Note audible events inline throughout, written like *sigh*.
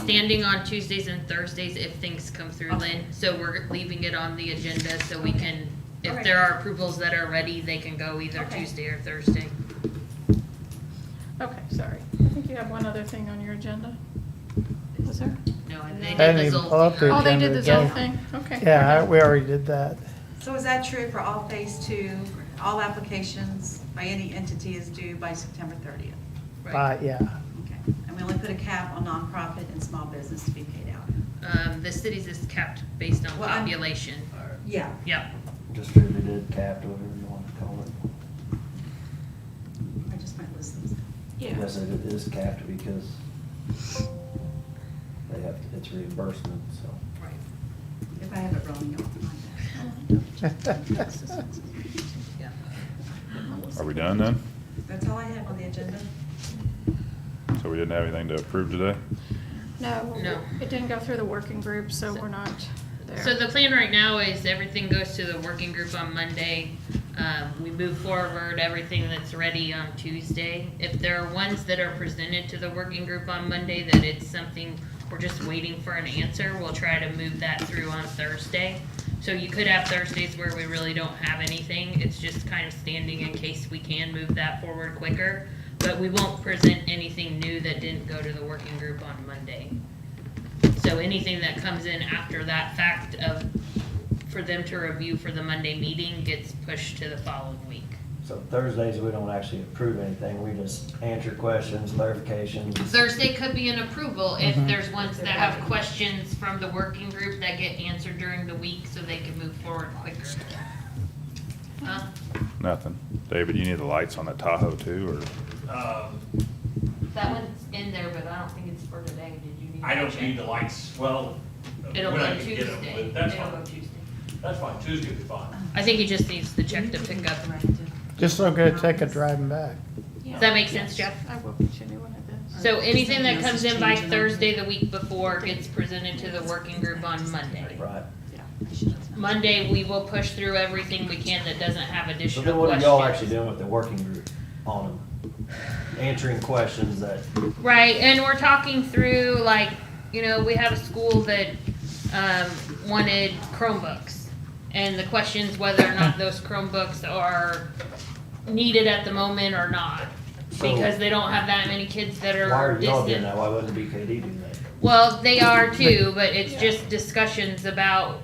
standing on Tuesdays and Thursdays if things come through, Okay. Lynn. So we're leaving it on the agenda so we can, if Okay. there are approvals that are ready, they can go either Okay. Tuesday or Thursday. Okay, sorry. I think you have one other thing on your agenda. Was there? No, and No. they did I didn't the uh, even Zoll pull up thing the Oh, already. they did agenda, this whole yeah. thing? Okay. Yeah, I- we already did that. So is that true for all phase two? All applications by any entity is due by September 30th? Right. But, yeah, Okay. And we only put a cap on nonprofit and small business to be paid out? Um, the cities is capped based on Well, I'm- population. Yeah. Yeah, distributed, capped, whatever you want to call it. I just might lose those. Yes, it is capped because they have, it's reimbursement, so. Right. If I have it wrong, you'll *laughs* find out. yeah. Are we done then? That's all I have on the agenda. So we didn't have anything to approve today? No. No. It didn't go through the working group, so we're not there. So the plan right now is everything goes to the working group on Monday. Um, we move forward everything that's ready on Tuesday. If there are ones that are presented to the working group on Monday that it's something we're just waiting for an answer, we'll try to move that through on Thursday. So you could have Thursdays where we really don't have anything. It's just kind of standing in case we can move that forward quicker. But we won't present anything new that didn't go to the working group on Monday. So anything that comes in after that fact of, for them to review for the Monday meeting gets pushed to the following week. So Thursdays, we don't actually approve anything, we just answer questions, clarifications. Thursday could be an approval if Mhm. there's ones that have questions from the working group that get answered during the week so they can move forward quicker. Huh? Nothing. David, you need the lights on that Tahoe too, or? Um, That one's in there, but I don't think it's for today. Did you need to I don't check? need the lights, well, when It'll go I on can get them, Tuesday. but that's It'll go fine, Tuesday. that's fine, Tuesday will be fine. I think he just needs to check to pick up. just so good to take a driving back. Yeah. Does that make sense, Jeff? I will get you a new one of this. So anything that Something else comes is in by changing on Thursday, the week before, gets presented to the working group on Monday. Right. Monday, we will push through everything we can that doesn't have So additional then what are y'all actually questions. doing with the working group on them? Answering questions that, Right, and we're talking through, like, you know, we have a school that, um, wanted Chromebooks. And the questions whether or not those Chromebooks are needed at the moment or not. So- Because they don't have that many kids that why are are y'all doing distant that, why wouldn't BKD do that? Well, they are too, but it's Yeah. just discussions about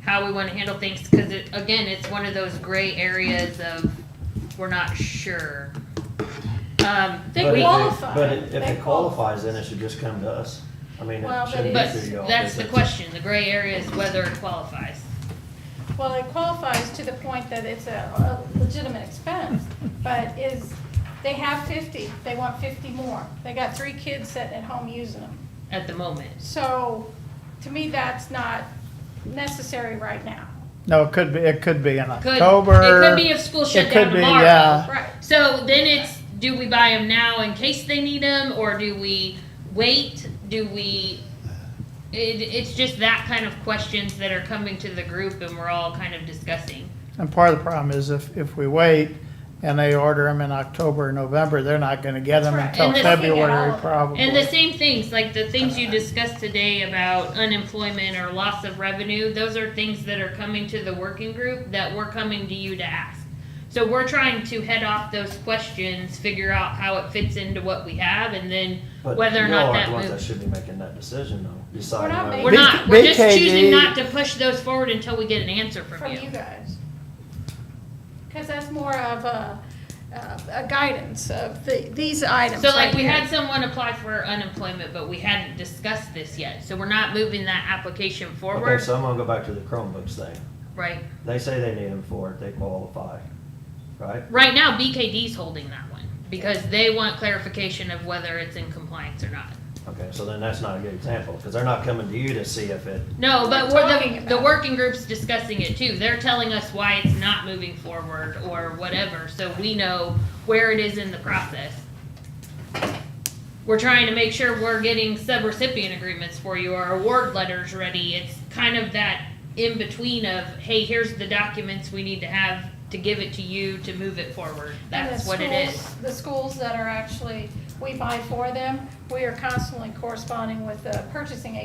how we want to handle things because it, again, it's one of those gray areas of we're not sure. Um, They But if qualify. But it- if They it qualifies, then it should just come to us, I mean, Well, it but shouldn't but be through y'all. that's the because question. The gray area is whether it qualifies. Well, it qualifies to the point that it's a a legitimate expense, but is, they have 50, they want 50 more. They got three kids sitting at home using them. At the moment, So, to me, that's not necessary right now. No, it could be, it could be in could October. it could be if school shut It down could be, tomorrow? yeah. Right. So then it's do we buy them now in case they need them, or do we wait? Do we? It, it's just that kind of questions that are coming to the group, and we're all kind of discussing. And part of the problem is if, if we wait and they order them in October or November, they're not gonna get them That's right. until And this- February probably. And the same things, like the things you discussed today about unemployment or loss of revenue, those are things that are coming to the working group that we're coming to you to ask. So we're trying to head off those questions, figure out how it fits into what we have, and then But whether or y'all not aren't that the ones moves. should be making that decision though, deciding. not whether- We're B- not, we're just BKD choosing not to push those forward until we get an answer from from you you. guys. Because that's more of a, uh, a guidance of the, these items So like, right we here. had someone apply for unemployment, but we hadn't discussed this yet, so we're not moving that application Okay, forward, so I'm gonna go back to the Chromebooks thing. right? They say they need them for it, they qualify, right? Right now, BKD's holding that one, because they want clarification of whether it's in compliance or not. Okay, so then that's not a good example, because they're not coming to you to see if it, No, but We're we're talking the, about the it. working group's discussing it too. They're telling us why it's not moving forward or whatever, so we know where it is in the process. We're trying to make sure we're getting sub-recipient agreements for you, our award letters ready. It's kind of that in-between of, hey, here's the documents we need to have to give it to you to move it forward. And the That's what it schools- is. The schools that are actually we buy for them. We are constantly corresponding with the purchasing